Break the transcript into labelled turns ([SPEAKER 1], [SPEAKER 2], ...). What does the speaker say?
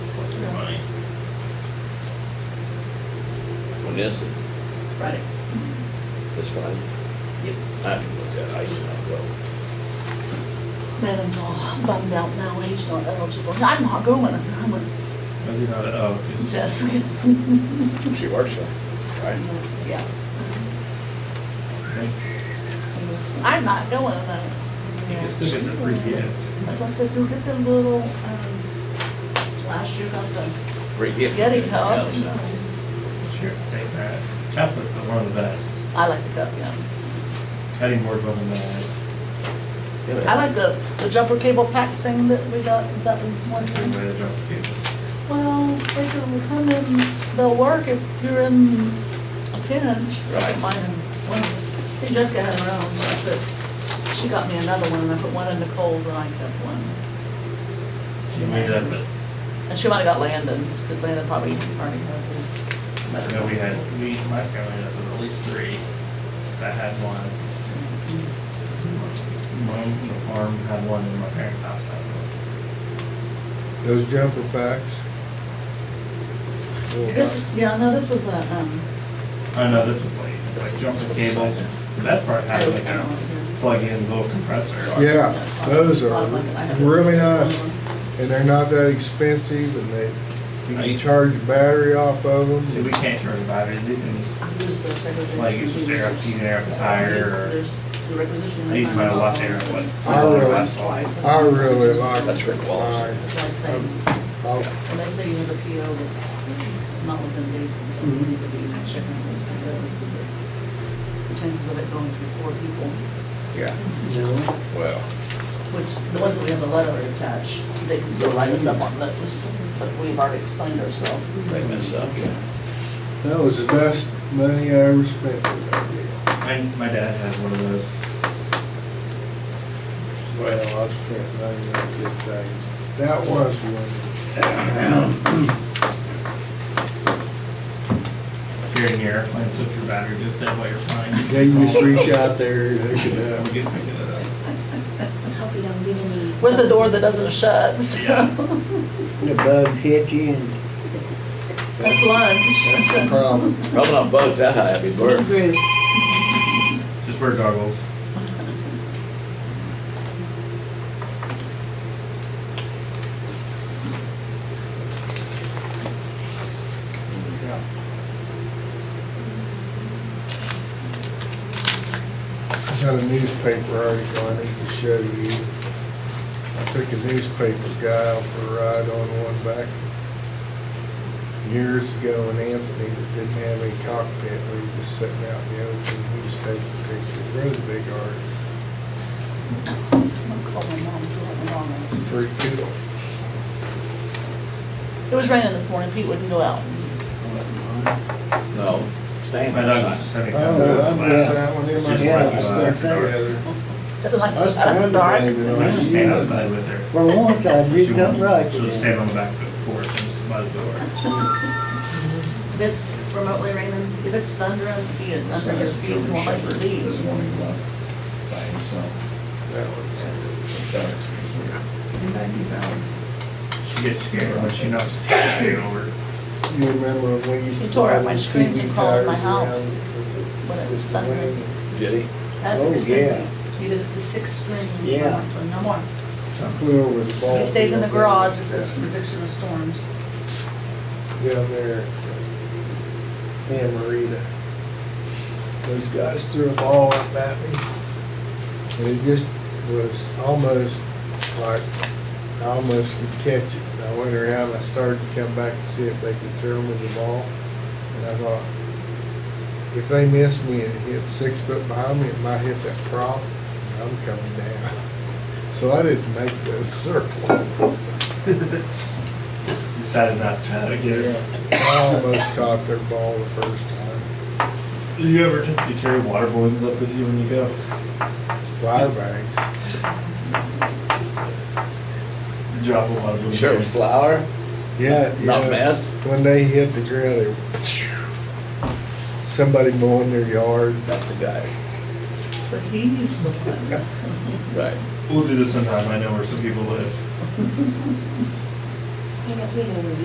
[SPEAKER 1] When is it?
[SPEAKER 2] Friday.
[SPEAKER 1] It's fine.
[SPEAKER 2] Yep.
[SPEAKER 1] I can look at, it. I do not go.
[SPEAKER 3] Madam's all uh, bummed out now, he's not eligible. I'm not going, I'm going,
[SPEAKER 4] Was he not, oh, 'cause-
[SPEAKER 3] Jessica.
[SPEAKER 1] She works on it, right?
[SPEAKER 3] Yeah.
[SPEAKER 4] okay.
[SPEAKER 3] I'm not going, I'm like,
[SPEAKER 4] You can still get the free gift.
[SPEAKER 3] That's why I said, go get the little, um, last year got the
[SPEAKER 1] Free gift.
[SPEAKER 3] Getty cup.
[SPEAKER 4] uh, Sure, stay fast. Cup was the one of the best.
[SPEAKER 3] I like the cup, yeah.
[SPEAKER 4] Cutting board wasn't that.
[SPEAKER 3] I like the, the jumper cable pack thing that we got, that we won.
[SPEAKER 4] Everybody that dropped the cables.
[SPEAKER 3] Well, they can come in, they'll work if you're in a pinch.
[SPEAKER 1] Right.
[SPEAKER 3] Mine and one, and Jessica had her own, so I put, she got me another one, and I put one in the cold, and I kept one.
[SPEAKER 4] She made it up, but
[SPEAKER 3] And she might've got Landon's, because Landon probably already had his.
[SPEAKER 4] I know we had, we, my family had at least three. So I had one. One on the farm, had one in my parents' house. I had one.
[SPEAKER 5] Those jumper packs? Little
[SPEAKER 3] This, yeah, no, this was a, um,
[SPEAKER 4] Oh, no, this was late. It's like jumping cables. The best part
[SPEAKER 3] I
[SPEAKER 4] had
[SPEAKER 3] was
[SPEAKER 4] like
[SPEAKER 3] saying.
[SPEAKER 4] a plug-in little compressor.
[SPEAKER 5] Yeah, those are really nice, and they're not that expensive, and they, you can charge your battery off of
[SPEAKER 4] See,
[SPEAKER 5] them.
[SPEAKER 4] we can't charge batteries. These things, like, it's just air, you can air up the tire or.
[SPEAKER 3] There's the requisition.
[SPEAKER 4] I used mine a lot there, what,
[SPEAKER 5] I
[SPEAKER 4] five
[SPEAKER 5] really-
[SPEAKER 4] months last fall?
[SPEAKER 5] I really like. Um, Oh,
[SPEAKER 1] That's Rick Wallace.
[SPEAKER 5] mine.
[SPEAKER 3] That's why I say,
[SPEAKER 5] I'll-
[SPEAKER 3] when they say you have a PO that's not within dates and stuff, you need to be checking those POs because the chances of it going through four people
[SPEAKER 1] Yeah,
[SPEAKER 6] No,
[SPEAKER 1] well,
[SPEAKER 3] Which, the ones that we have the letter attached, they can still write us up on those, but we've already explained ourselves.
[SPEAKER 1] they mess up.
[SPEAKER 5] That was the best money I ever spent for that deal.
[SPEAKER 4] My, my dad has one of those.
[SPEAKER 5] Well, I spent money on good things. That was one.
[SPEAKER 4] Here and here, and so if your battery goes dead while you're flying.
[SPEAKER 5] Yeah, you just reach out there and uh, hook it up.
[SPEAKER 4] We uh, can pick it up.
[SPEAKER 2] Hope we don't get any.
[SPEAKER 3] With a door that doesn't shut, so.
[SPEAKER 4] Yeah.
[SPEAKER 6] the bug hit you and
[SPEAKER 3] That's
[SPEAKER 5] That's the
[SPEAKER 3] lunch.
[SPEAKER 5] problem.
[SPEAKER 1] Rubbing on bugs, that high, happy bird.
[SPEAKER 3] Agree.
[SPEAKER 4] Just wear goggles.
[SPEAKER 5] I got a newspaper article I need to show you. I took a newspaper guy out for a ride on one back years ago in Anthony that didn't have any cockpit. We were just sitting out in the open. He was taking pictures. Really big art.
[SPEAKER 3] I'm gonna call my mom, too, I'm wrong.
[SPEAKER 5] It's pretty cool.
[SPEAKER 3] It was raining this morning, Pete wouldn't go out.
[SPEAKER 1] No, stand
[SPEAKER 4] My dog was
[SPEAKER 1] outside.
[SPEAKER 4] just having.
[SPEAKER 5] Oh, I'm
[SPEAKER 6] just-
[SPEAKER 5] that one.
[SPEAKER 4] It's just
[SPEAKER 5] It must
[SPEAKER 6] Yeah,
[SPEAKER 5] have
[SPEAKER 6] it's
[SPEAKER 4] regular.
[SPEAKER 5] stuck
[SPEAKER 6] like that.
[SPEAKER 5] together.
[SPEAKER 3] Doesn't like,
[SPEAKER 5] That's
[SPEAKER 3] that's
[SPEAKER 5] kind
[SPEAKER 3] dark.
[SPEAKER 5] of
[SPEAKER 4] I
[SPEAKER 5] bad,
[SPEAKER 4] just stand outside with her.
[SPEAKER 6] for once I
[SPEAKER 4] She
[SPEAKER 6] did
[SPEAKER 4] won't-
[SPEAKER 6] not right.
[SPEAKER 4] She'll just stand on the back of the porch and just by the door.
[SPEAKER 3] If it's remotely raining, if it's thundering, he is under his feet, won't let you
[SPEAKER 7] This
[SPEAKER 3] leave.
[SPEAKER 7] morning, left by himself,
[SPEAKER 5] That one's-
[SPEAKER 7] some dark, ninety pounds.
[SPEAKER 4] She gets scared when she knocks the tree over.
[SPEAKER 5] You remember when we used to.
[SPEAKER 3] He tore up my
[SPEAKER 5] ride those
[SPEAKER 3] screens
[SPEAKER 5] TV
[SPEAKER 3] and crawled my
[SPEAKER 5] tires
[SPEAKER 3] house
[SPEAKER 5] around
[SPEAKER 3] when it was
[SPEAKER 5] with the
[SPEAKER 3] thundering.
[SPEAKER 5] wind?
[SPEAKER 1] Did he?
[SPEAKER 3] That's
[SPEAKER 6] Oh,
[SPEAKER 3] expensive. He did it to six screens.
[SPEAKER 6] Yeah.
[SPEAKER 3] No more.
[SPEAKER 5] I flew over the ball.
[SPEAKER 3] He stays in the
[SPEAKER 5] field.
[SPEAKER 3] garage if there's prediction of storms.
[SPEAKER 5] Down there, in Marita. Those guys threw a ball up at me. And it just was almost like, I almost could catch it. And I went around, I started to come back to see if they could throw me the ball. And I thought, if they miss me and it hit six foot behind me, it might hit that prop, and I'm coming down. So I didn't make the circle.
[SPEAKER 4] Decided not to get her.
[SPEAKER 5] I almost caught their ball the first time.
[SPEAKER 4] Do you ever attempt to carry water balloons up with you when you go?
[SPEAKER 5] Fire bags.
[SPEAKER 4] Drop a water balloon.
[SPEAKER 1] Sure, it was flour,
[SPEAKER 5] Yeah, yeah.
[SPEAKER 1] not meth.
[SPEAKER 5] When they hit the ground, they, somebody mowing their yard.
[SPEAKER 1] That's the guy,
[SPEAKER 3] So he's the one.
[SPEAKER 1] right.
[SPEAKER 4] We'll do this sometime. I know where some people live.
[SPEAKER 2] Ain't no- we know where you